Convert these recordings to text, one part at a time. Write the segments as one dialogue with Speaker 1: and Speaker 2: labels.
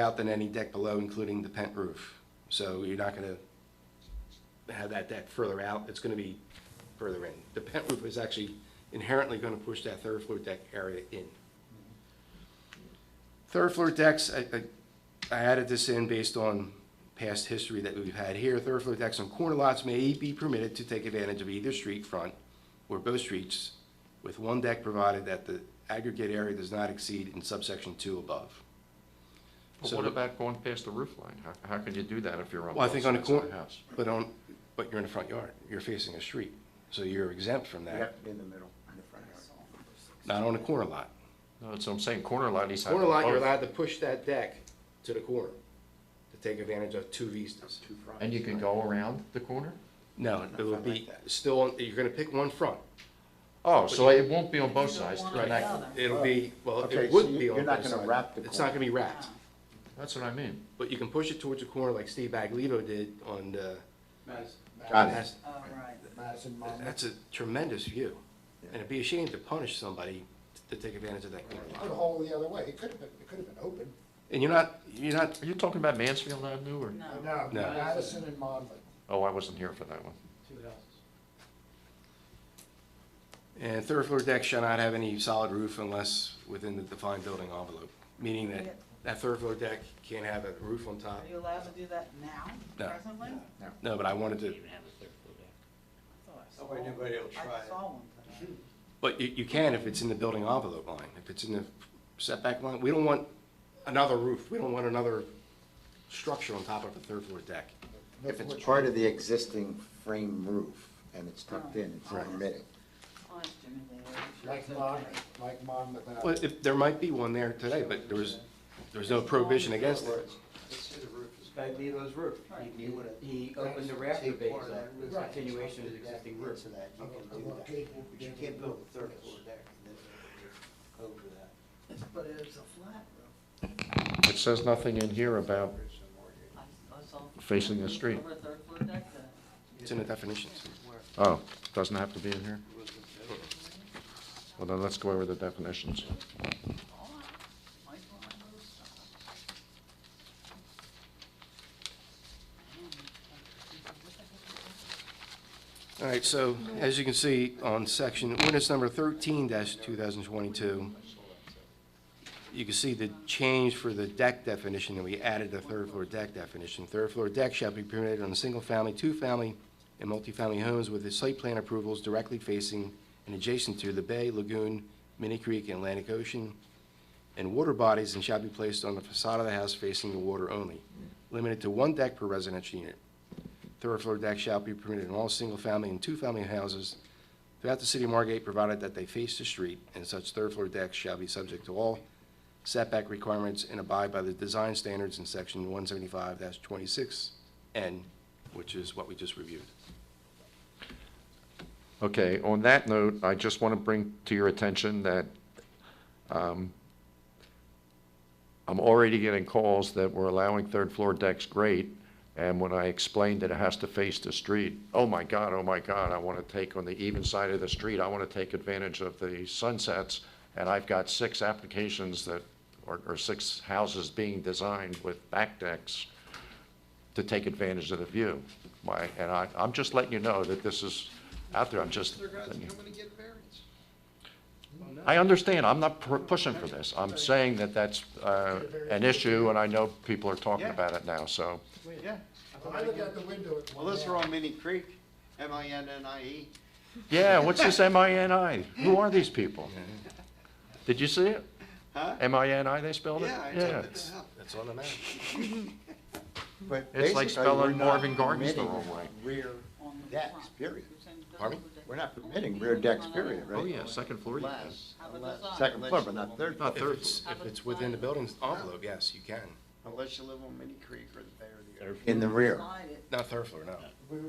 Speaker 1: out than any deck below, including the pent roof. So you're not going to have that deck further out, it's going to be further in. The pent roof is actually inherently going to push that third floor deck area in. Third floor decks, I, I- I added this in based on past history that we've had here. Third floor decks on corner lots may be permitted to take advantage of either street front or both streets with one deck provided that the aggregate area does not exceed in subsection two above.
Speaker 2: But
Speaker 1: So-
Speaker 2: what about going past the roof line? How, how can you do that if you're on
Speaker 1: Well, I
Speaker 2: both
Speaker 1: think
Speaker 2: sides
Speaker 1: on a
Speaker 2: of
Speaker 1: corner,
Speaker 2: the house?
Speaker 1: but on, but you're in the front yard, you're facing a street, so you're exempt from
Speaker 3: You have
Speaker 1: that,
Speaker 3: to be in the middle, in the front yard.
Speaker 1: not on a corner lot.
Speaker 2: No, that's what I'm saying, corner lot, he's having.
Speaker 1: Corner lot, you're
Speaker 2: both.
Speaker 1: allowed to push that deck to the corner to take advantage of two vistas.
Speaker 3: Two fronts.
Speaker 2: And you can go around the corner?
Speaker 1: No, it will
Speaker 3: Front like
Speaker 1: be
Speaker 3: that.
Speaker 1: still, on- you're gonna pick one front,
Speaker 2: Oh, so it won't be on both
Speaker 4: You don't
Speaker 2: sides,
Speaker 4: want
Speaker 2: right?
Speaker 1: right?
Speaker 4: Another.
Speaker 1: It'll be, well,
Speaker 3: Okay,
Speaker 1: it
Speaker 3: so
Speaker 1: would
Speaker 3: you-
Speaker 1: be on
Speaker 3: you're not
Speaker 1: both
Speaker 3: gonna
Speaker 1: sides.
Speaker 3: wrap the
Speaker 1: It's not gonna be wrapped,
Speaker 2: That's what I mean.
Speaker 1: but you can push it towards the corner like Steve Baglito did on the.
Speaker 3: Got it.
Speaker 1: That's-
Speaker 4: Oh, right.
Speaker 3: Madison, Monmouth.
Speaker 1: That's a tremendous view, and it'd be a shame to punish somebody to take advantage of that corner lot.
Speaker 5: Put a hole the other way, it could have been, it could have been open.
Speaker 1: And you're not, you're not,
Speaker 2: Are you talking about Mansfield Avenue or?
Speaker 4: No.
Speaker 5: No,
Speaker 1: No.
Speaker 5: Madison and Monmouth.
Speaker 2: Oh, I wasn't here for that one.
Speaker 1: and third floor deck shall not have any solid roof unless within the defined building envelope, meaning
Speaker 4: Yeah.
Speaker 1: that that third floor deck can't have a roof on top.
Speaker 4: Are you allowed to do that now,
Speaker 1: No.
Speaker 4: presently?
Speaker 1: No, but I wanted to,
Speaker 4: Nobody, nobody will try it. I saw one today.
Speaker 1: but you, you can if it's in the building envelope line, if it's in the setback line. We don't want another roof, we don't want another structure on top of the third floor deck.
Speaker 3: If it's part of the existing frame roof and it's tucked in, it's
Speaker 4: Right.
Speaker 3: permitted.
Speaker 4: Honest, Jimmy, they were sure
Speaker 5: Like
Speaker 4: said
Speaker 5: Monmouth, like Monmouth.
Speaker 1: Well, if, there might be one there today, but there was, there was no prohibition against it.
Speaker 6: Baglero's roof. He- He, he opened the rafter base up, it was a continuation of the existing roof.
Speaker 5: You can do that.
Speaker 6: But you can't build a third floor deck, and then over that.
Speaker 4: that. But it's a flat roof.
Speaker 2: It says nothing in here about,
Speaker 4: I- I saw-
Speaker 2: Facing the street.
Speaker 4: Over a third floor deck, uh,
Speaker 1: It's in the definitions.
Speaker 2: oh, doesn't have to be in here? Well, then let's go over the definitions.
Speaker 4: all right. oh, Might as well have those stuff.
Speaker 1: All right, so as you can see on section, ordinance number thirteen two thousand twenty-two, you can see the change for the deck definition, and we added the third floor deck definition. Third floor deck shall be permitted on single-family, two-family, and multifamily homes with the site plan approvals directly facing and adjacent to the bay, lagoon, mini creek, and Atlantic Ocean, and water bodies, and shall be placed on the facade of the house facing the water only, limited to one deck per residential unit. Third floor deck shall be permitted in all single-family and two-family houses throughout the city of Margate, provided that they face the street, and such third floor decks shall be subject to all setback requirements and abide by the design standards in section one seventy-five twenty-six N, which is what we just reviewed.
Speaker 2: Okay, on that note, I just want to bring to your attention that um, I'm already getting calls that we're allowing third-floor decks, great, and when I explained that it has to face the street, oh my God, oh my God, I want to take on the even side of the street, I want to take advantage of the sunsets, and I've got six applications that, or or six houses being designed with back decks to take advantage of the view. My, and I, I'm just letting you know that this is out there, I'm just. I understand, I'm not pu- pushing for this, I'm saying that that's, uh, an issue, and I know people are talking
Speaker 7: Yeah.
Speaker 2: about it now, so.
Speaker 7: Yeah.
Speaker 5: When I look out the window at
Speaker 7: Well,
Speaker 5: one
Speaker 7: those
Speaker 5: now,
Speaker 7: are on Mini Creek, M I N N I E.
Speaker 2: Yeah, what's this M-I-N-I? Who are these people? Did you see it?
Speaker 7: Huh?
Speaker 2: M-I-N-I, they spelled it?
Speaker 7: Yeah, I said, what the hell?
Speaker 1: That's on the map.
Speaker 3: But
Speaker 2: It's like
Speaker 3: basically,
Speaker 2: spelling
Speaker 3: we're not
Speaker 2: Marvin Gardens the
Speaker 3: permitting
Speaker 2: wrong way.
Speaker 3: Rear
Speaker 4: On the
Speaker 3: decks,
Speaker 4: front.
Speaker 3: period.
Speaker 4: You're saying third
Speaker 1: Pardon me?
Speaker 4: floor deck.
Speaker 3: We're not permitting rear decks, period, right?
Speaker 2: Oh, yeah, second floor, you can.
Speaker 7: Unless,
Speaker 4: Have a
Speaker 7: unless,
Speaker 4: design.
Speaker 3: Second floor, but not third.
Speaker 2: Not
Speaker 1: If
Speaker 2: third,
Speaker 1: it's, if it's within the building's envelope, yes, you can.
Speaker 7: unless you live on Mini Creek or the Bay or the Ocean.
Speaker 3: In the rear.
Speaker 4: Slide it.
Speaker 1: Not third floor, no.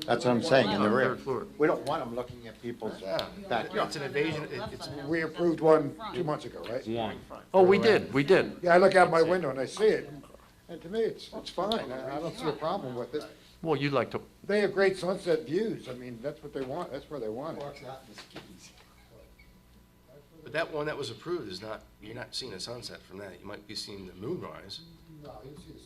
Speaker 3: That's what I'm saying, in the
Speaker 2: floor.
Speaker 3: rear.
Speaker 2: third floor.
Speaker 3: We don't want them looking at people's
Speaker 1: Uh, It's
Speaker 3: backyard.
Speaker 1: an invasion, it- it's,
Speaker 5: We approved one two months ago, right?
Speaker 2: Oh, we did, we did.
Speaker 5: Yeah, I look out my window and I see it, and to me, it's, it's fine, I I don't see a problem with it.
Speaker 2: Well, you'd like to,
Speaker 5: They have great sunset views, I mean, that's what they want, that's where they want it.
Speaker 1: but that one that was approved is not, you're not seeing a sunset from that. You might be seeing the moonrise,
Speaker 5: No, you see the